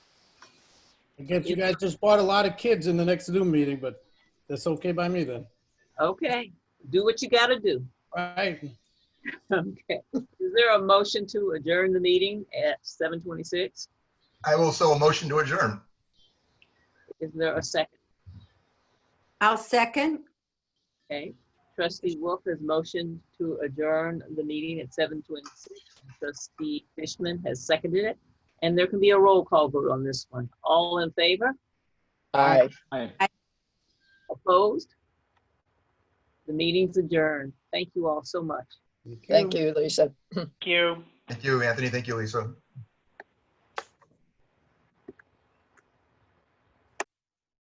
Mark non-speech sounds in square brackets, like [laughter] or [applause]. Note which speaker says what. Speaker 1: I guess you guys just bought a lot of kids in the next Zoom meeting, but that's okay by me then.
Speaker 2: Okay, do what you gotta do. [laughs]
Speaker 1: All right,
Speaker 2: Okay. Is there a motion to adjourn the meeting at seven twenty-six?
Speaker 3: I will so a motion to adjourn.
Speaker 2: Is there a second?
Speaker 4: I'll second.
Speaker 2: Okay. Trustee Wolf has motioned to adjourn the meeting at seven twenty-six. Trustee Fishman has seconded it. And there can be a roll call vote on this one. All in favor?
Speaker 5: Aye.
Speaker 2: Opposed? The meeting's adjourned. Thank you all so much.
Speaker 5: Thank you, Lisa.
Speaker 6: Thank you.
Speaker 3: Thank you, Anthony. Thank you, Lisa.